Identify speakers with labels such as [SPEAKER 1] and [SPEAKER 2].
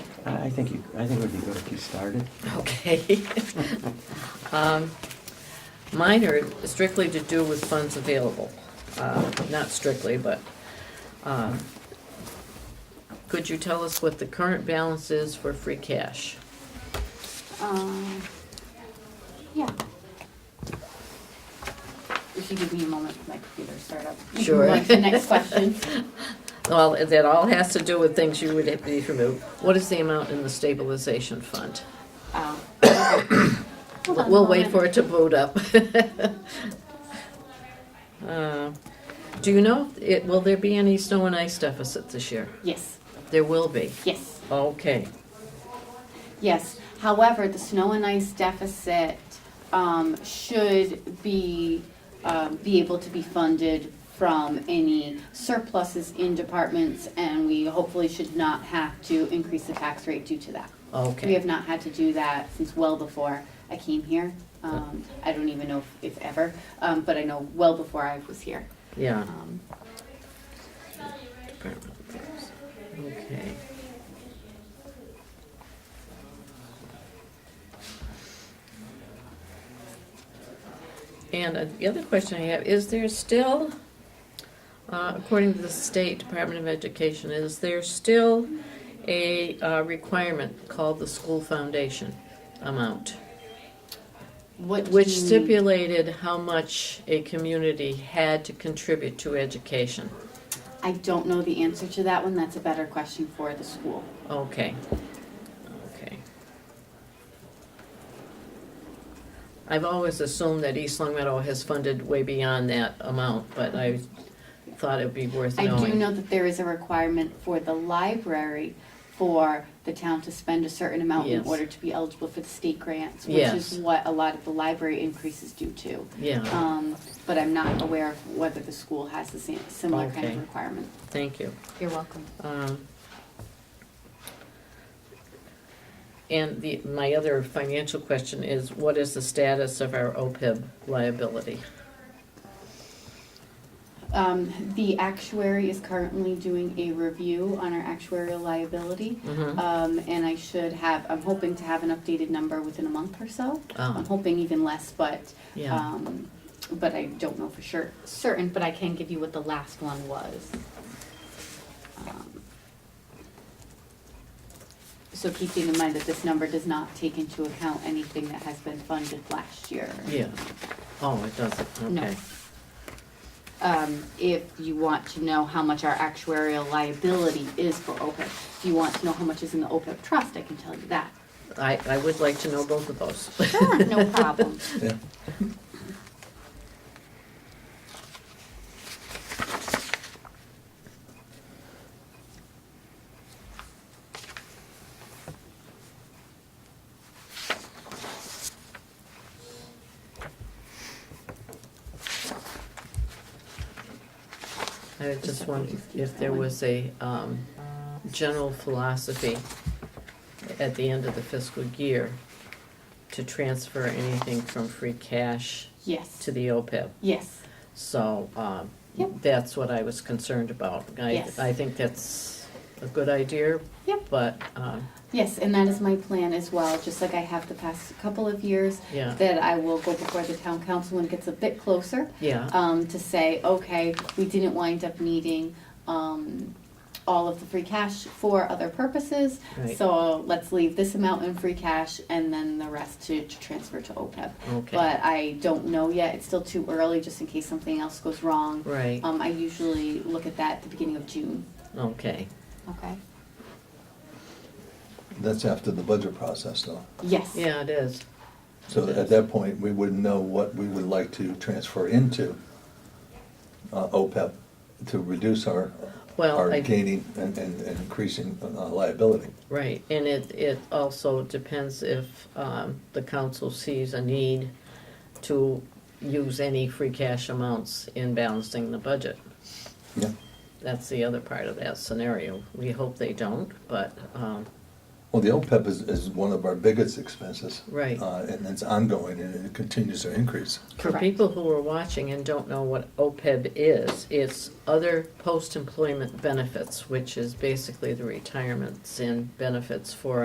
[SPEAKER 1] I I think you, I think it would be good if you started.
[SPEAKER 2] Okay. Um, Mine are strictly to do with funds available. Uh, Not strictly, but um, could you tell us what the current balance is for free cash?
[SPEAKER 3] Um, yeah. If you give me a moment, my computer start up. You can
[SPEAKER 2] Sure.
[SPEAKER 3] go on to the next question.
[SPEAKER 2] Well, that all has to do with things you would have to remove. What is the amount in the stabilization fund?
[SPEAKER 3] Um, okay. Hold on a
[SPEAKER 2] We'll wait
[SPEAKER 3] moment.
[SPEAKER 2] for it to boot up. Uh, Do you know, it- will there be any snow and ice deficit this year?
[SPEAKER 3] Yes,
[SPEAKER 2] There will be.
[SPEAKER 3] yes,
[SPEAKER 2] Okay.
[SPEAKER 3] yes. However, the snow and ice deficit, um, should be, um, be able to be funded from any surpluses in departments, and we hopefully should not have to increase the tax rate due to that. We have
[SPEAKER 2] Okay.
[SPEAKER 3] not had to do that since well before I came here. Um, I don't even know if, if ever, um, but I know well before I was here.
[SPEAKER 2] Yeah.
[SPEAKER 3] Um,
[SPEAKER 2] Okay. And uh, the other question I have, is there still, uh, according to the State Department of Education, is there still a uh, requirement called the school foundation amount?
[SPEAKER 3] what do
[SPEAKER 2] Which
[SPEAKER 3] you mean?
[SPEAKER 2] stipulated how much a community had to contribute to education.
[SPEAKER 3] I don't know the answer to that one. That's a better question for the school.
[SPEAKER 2] Okay, okay. I've always assumed that East Long Meadow has funded way beyond that amount, but I thought it'd be worth
[SPEAKER 3] I
[SPEAKER 2] knowing.
[SPEAKER 3] do know that there is a requirement for the library for the town to spend a certain amount in
[SPEAKER 2] Yes.
[SPEAKER 3] order to be eligible for the state grants, which
[SPEAKER 2] Yes.
[SPEAKER 3] is what a lot of the library increases due to.
[SPEAKER 2] Yeah,
[SPEAKER 3] Um, but I'm not aware of whether the school has the same, similar kind
[SPEAKER 2] Okay.
[SPEAKER 3] of requirement.
[SPEAKER 2] thank you.
[SPEAKER 3] You're welcome.
[SPEAKER 2] Um, And the, my other financial question is, what is the status of our OPEB liability?
[SPEAKER 3] Um, the actuary is currently doing a review on our actuarial liability.
[SPEAKER 2] Mhm.
[SPEAKER 3] Um, and I should have, I'm hoping to have an updated number within a month or so. I'm
[SPEAKER 2] Oh,
[SPEAKER 3] hoping even less, but,
[SPEAKER 2] yeah,
[SPEAKER 3] um, but I don't know for sure, certain, but I can give you what the last one was. Um, So keeping in mind that this number does not take into account anything that has been funded last year.
[SPEAKER 2] yeah. Oh, it doesn't,
[SPEAKER 3] No.
[SPEAKER 2] okay.
[SPEAKER 3] um, if you want to know how much our actuarial liability is for OPEB. If you want to know how much is in the OPEB trust, I can tell you that.
[SPEAKER 2] I, I would like to know both of those.
[SPEAKER 3] Sure, no problem.
[SPEAKER 4] Yeah.
[SPEAKER 2] I just wondered if there was a um, general philosophy at the end of the fiscal year to transfer anything from free cash
[SPEAKER 3] Yes,
[SPEAKER 2] to the OPEB.
[SPEAKER 3] yes,
[SPEAKER 2] So um,
[SPEAKER 3] Yep.
[SPEAKER 2] that's what I was concerned about. I,
[SPEAKER 3] Yes.
[SPEAKER 2] I think that's a good idea,
[SPEAKER 3] Yep.
[SPEAKER 2] but um,
[SPEAKER 3] yes, and that is my plan as well, just like I have the past couple of years,
[SPEAKER 2] yeah,
[SPEAKER 3] that I will go before the town council when it gets a bit closer,
[SPEAKER 2] yeah,
[SPEAKER 3] um, to say, okay, we didn't wind up needing, um, all of the free cash for other purposes,
[SPEAKER 2] right,
[SPEAKER 3] so let's leave this amount in free cash and then the rest to to transfer to OPEB.
[SPEAKER 2] okay,
[SPEAKER 3] but I don't know yet. It's still too early, just in case something else goes wrong.
[SPEAKER 2] right,
[SPEAKER 3] Um, I usually look at that at the beginning of June.
[SPEAKER 2] okay,
[SPEAKER 3] Okay.
[SPEAKER 4] That's after the budget process, though.
[SPEAKER 3] Yes.
[SPEAKER 2] yeah, it is.
[SPEAKER 4] So at that point, we wouldn't know what we would like to transfer into uh, OPEB to reduce our,
[SPEAKER 2] Well,
[SPEAKER 4] our
[SPEAKER 2] I
[SPEAKER 4] gaining and and and increasing uh, liability.
[SPEAKER 2] Right, and it, it also depends if um, the council sees a need to use any free cash amounts in balancing the budget.
[SPEAKER 4] Yeah.
[SPEAKER 2] That's the other part of that scenario. We hope they don't, but um,
[SPEAKER 4] Well, the OPEB is, is one of our biggest expenses.
[SPEAKER 2] Right.
[SPEAKER 4] Uh, and it's ongoing and it continues to increase.
[SPEAKER 2] For
[SPEAKER 3] Correct.
[SPEAKER 2] people who are watching and don't know what OPEB is, it's other post-employment benefits, which is basically the retirements and benefits for